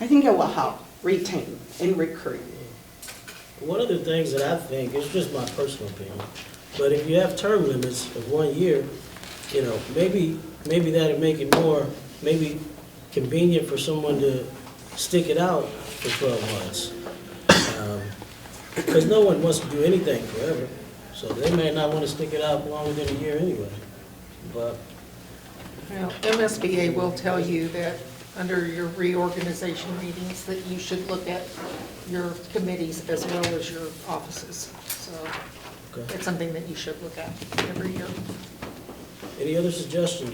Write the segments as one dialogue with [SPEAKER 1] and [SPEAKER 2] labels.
[SPEAKER 1] I think it will help retain and recruit.
[SPEAKER 2] One of the things that I think, it's just my personal opinion, but if you have term limits of one year, you know, maybe, maybe that'd make it more, maybe convenient for someone to stick it out for twelve months. Because no one wants to do anything forever, so they may not want to stick it out longer than a year anyway. But
[SPEAKER 3] Well, MSBA will tell you that under your reorganization meetings, that you should look at your committees as well as your offices. So
[SPEAKER 2] okay.
[SPEAKER 3] it's something that you should look at every year.
[SPEAKER 2] Any other suggestions,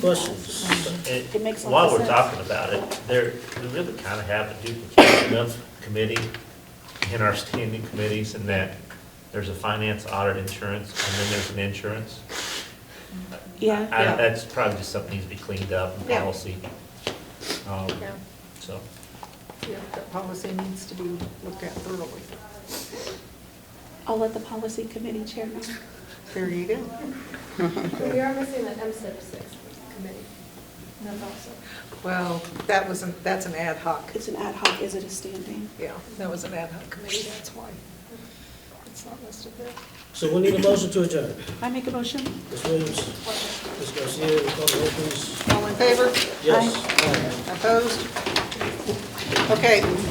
[SPEAKER 2] questions?
[SPEAKER 4] And
[SPEAKER 5] It makes a lot
[SPEAKER 4] While
[SPEAKER 5] of
[SPEAKER 4] we're
[SPEAKER 5] sense.
[SPEAKER 4] talking about it, there, we really kind of have a duplication of committee in our standing committees in that there's a finance audit insurance and then there's an insurance.
[SPEAKER 5] Yeah.
[SPEAKER 4] I-
[SPEAKER 3] Yeah.
[SPEAKER 4] That's probably just something needs to be cleaned up in
[SPEAKER 3] Yeah.
[SPEAKER 4] policy. Um,
[SPEAKER 3] Yeah,
[SPEAKER 4] So,
[SPEAKER 3] yeah, that policy needs to be looked at thoroughly.
[SPEAKER 5] I'll let the policy committee chair know.
[SPEAKER 3] There you go.
[SPEAKER 6] We are missing the MSIP six committee. That's also.
[SPEAKER 3] Well, that was, an that's an ad hoc.
[SPEAKER 5] It's an ad hoc, is it a standing?
[SPEAKER 3] Yeah, that was an ad hoc committee, that's why. It's not listed there.
[SPEAKER 2] So we need a motion to adjourn.
[SPEAKER 5] I make a motion?
[SPEAKER 2] Ms. Williams, Ms. Garcia, we call the roll, please.
[SPEAKER 3] All in favor?
[SPEAKER 2] Yes.
[SPEAKER 3] Opposed? Okay,